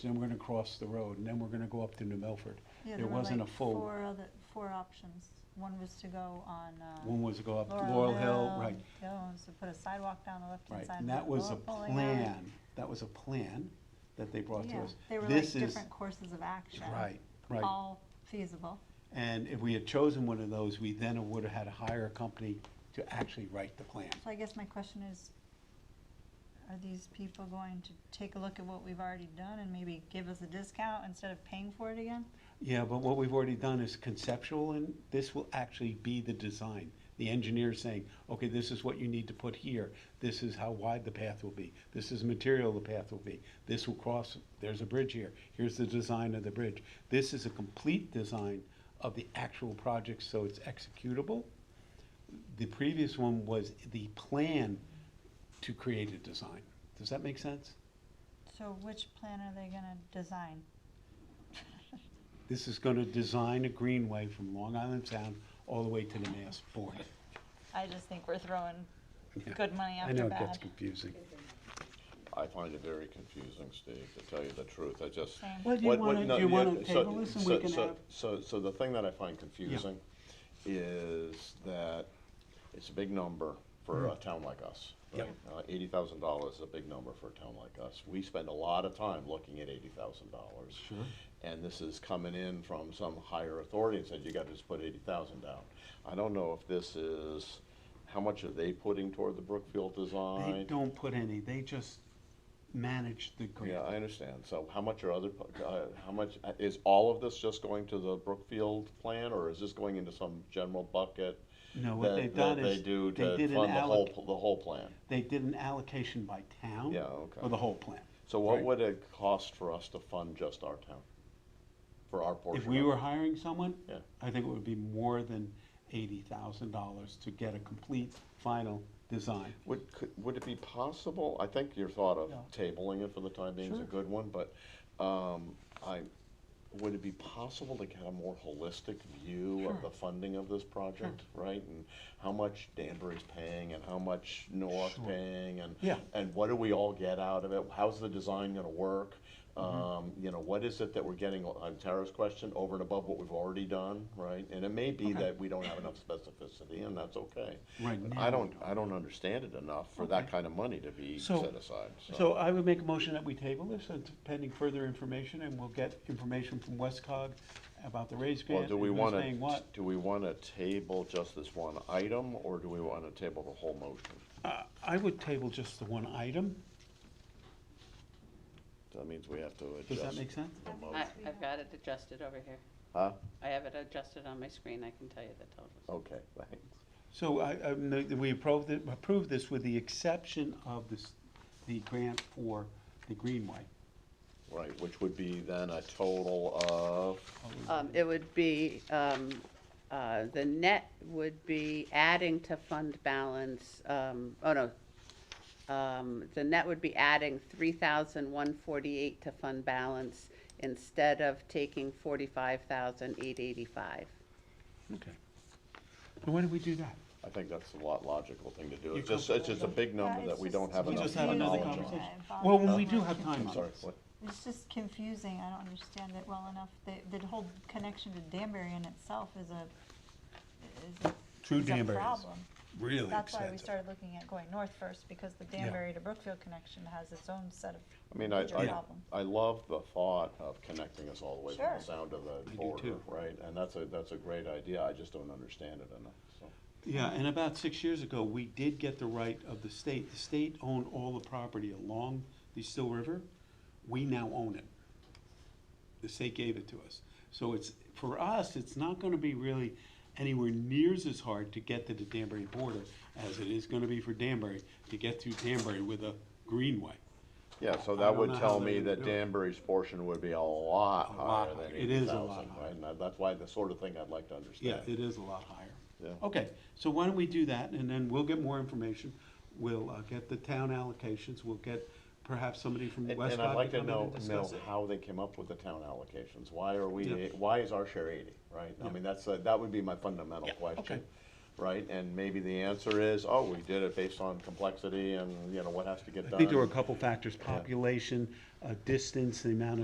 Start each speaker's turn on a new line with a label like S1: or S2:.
S1: then we're gonna cross the road, and then we're gonna go up to New Milford.
S2: Yeah,
S1: There
S2: were
S1: wasn't a
S2: like
S1: full,
S2: Four other, four options. One was to go on, uh.
S1: one was to go up
S2: Laurel
S1: Laurel Hill, right,
S2: The other one was to put a sidewalk down the left-hand
S1: right.
S2: side.
S1: And
S2: of
S1: that was a
S2: Laurel Hill.
S1: plan, that was a plan that they brought to
S2: Yeah,
S1: us.
S2: they were like
S1: This is
S2: different courses of action.
S1: Right, right.
S2: All feasible.
S1: And if we had chosen one of those, we then would have had to hire a company to actually write the plan.
S2: So I guess my question is, are these people going to take a look at what we've already done and maybe give us a discount instead of paying for it again?
S1: Yeah, but what we've already done is conceptual, and this will actually be the design. The engineer saying, okay, this is what you need to put here, this is how wide the path will be, this is the material the path will be, this will cross, there's a bridge here, here's the design of the bridge. This is a complete design of the actual project, so it's executable. The previous one was the plan to create a design. Does that make sense?
S2: So which plan are they gonna design?
S1: This is gonna design a greenway from Long Island Sound all the way to the Mass border.
S2: I just think we're throwing
S1: Yeah.
S2: good money
S1: I
S2: after
S1: know it gets
S2: bad.
S1: confusing.
S3: I find it very confusing, Steve, to tell you the truth. I just.
S2: Same.
S1: Well, do you
S3: What-
S1: wanna-
S3: what- no,
S1: do you
S3: yeah,
S1: wanna
S3: so-
S1: table this and
S3: so-
S1: we can
S3: so-
S1: have-
S3: So, so the thing that I find confusing is that it's a big number for a town like us.
S1: Mm-hmm. Yep.
S3: right? Uh, eighty thousand dollars is a big number for a town like us. We spend a lot of time looking at eighty thousand dollars. Sure. And this is coming in from some higher authority and said, you gotta just put eighty thousand down. I don't know if this is, how much are they putting toward the Brookfield design?
S1: They don't put any, they just manage the grant.
S3: Yeah, I understand. So how much are other, pu- uh, how much, uh, is all of this just going to the Brookfield plan, or is this going into some general bucket?
S1: No, what
S3: that-
S1: they've done
S3: that they
S1: is
S3: do
S1: they
S3: to
S1: did an
S3: fund the whole
S1: alloc-
S3: pl- The whole plan.
S1: They did an allocation by town.
S3: Yeah, okay.
S1: For the whole plan.
S3: So what
S1: Right.
S3: would it cost for us to fund just our town? For our portion?
S1: If we
S3: of
S1: were
S3: it?
S1: hiring someone,
S3: Yeah.
S1: I think it would be more than eighty thousand dollars to get a complete, final design.
S3: Would, could, would it be possible, I think your thought of
S1: Yeah.
S3: tabling it for the time being is a
S1: Sure.
S3: good one, but, um, I, would it be possible to get a more holistic view
S1: Sure.
S3: of the funding of this project, right? And how much Danbury's paying and how much North
S1: Sure.
S3: paying and,
S1: Yeah.
S3: and what do we all get out of it? How's the design gonna work?
S1: Mm-hmm.
S3: Um, you know, what is it that we're getting, on Tara's question, over and above what we've already done, right? And it may be
S1: Okay.
S3: that we don't have enough specificity and that's okay.
S1: Right
S3: But
S1: now,
S3: I
S1: we
S3: don't,
S1: don't.
S3: I don't understand it enough for that kind of money to be
S1: So-
S3: set aside,
S1: So I would make a motion that we table this, and pending further information, and we'll get information from Westcog about the raise
S3: Well,
S1: grant,
S3: do
S1: and
S3: we
S1: who's
S3: wanna,
S1: saying what.
S3: do we wanna table just this one item, or do we wanna table the whole motion?
S1: Uh, I would table just the one item,
S3: That means we have to adjust.
S1: does that make sense?
S3: the
S4: I,
S3: motion.
S4: I've got it adjusted over here.
S3: Huh?
S4: I have it adjusted on my screen, I can tell you the totals.
S3: Okay, thanks.
S1: So I, I, no, we approved, it- approved this with the exception of this, the grant for the Greenway.
S3: Right, which would be then a total of,
S4: Um, it would be, um, uh, the net would be adding to fund balance, um, oh no. Um, the net would be adding three thousand one forty-eight to fund balance instead of taking forty-five thousand eight eighty-five.
S1: Okay. And why did we do that?
S3: I think that's the lot logical thing to do.
S1: You
S3: It's just, it's just a big number
S2: Yeah,
S3: that
S2: it's
S3: we
S2: just-
S3: don't have
S1: We
S3: enough.
S1: just had another
S3: knowledge on.
S2: apologize.
S1: conversation.
S2: I
S1: Well, when we do
S2: apologize.
S1: have time
S3: I'm
S1: on
S3: sorry,
S1: this.
S3: what?
S2: It's just confusing, I don't understand it well enough. The, the whole connection to Danbury in itself is a, is a.
S1: True
S2: is a
S1: Danbury is
S2: problem.
S1: Really
S2: That's why we started looking at going north first, because the Danbury to Brookfield connection has its own set of
S3: I mean, I,
S2: major
S3: I,
S2: problems.
S3: I love the thought of connecting us all the way from
S2: Sure.
S3: the sound to the
S1: do
S3: border,
S1: too.
S3: right? And that's a, that's a great idea, I just don't understand it enough, so.
S1: Yeah, and about six years ago, we did get the right of the state. The state owned all the property along the Still River. We now own it. The state gave it to us. So it's, for us, it's not gonna be really anywhere nears as hard to get to the Danbury border as it is gonna be for Danbury to get through Danbury with a greenway.
S3: Yeah, so
S1: I
S3: that
S1: don't know
S3: would
S1: how
S3: tell
S1: they
S3: me
S1: would
S3: that
S1: do it.
S3: Danbury's portion would be a lot
S1: A lot
S3: higher than
S1: higher. It is
S3: eighty
S1: a lot
S3: thousand,
S1: higher.
S3: right? And that- that's why the sort of thing I'd like to
S1: Yeah,
S3: understand.
S1: it is a lot higher.
S3: Yeah.
S1: Okay, so why don't we do that, and then we'll get more information. We'll uh, get the town allocations, we'll get perhaps somebody from
S3: And
S1: Westcott
S3: and I'd
S1: to
S3: like to
S1: come in
S3: know,
S1: and
S3: know
S1: discuss it.
S3: how they came up with the town allocations. Why are we,
S1: Yeah.
S3: why is our share eighty, right? I
S1: Yeah.
S3: mean, that's, a- that would be my fundamental
S1: Yeah, okay.
S3: question, right? And maybe the answer is, oh, we did it based on complexity and, you know, what has to get
S1: I
S3: done.
S1: think there were a couple factors, population, uh, distance, the amount of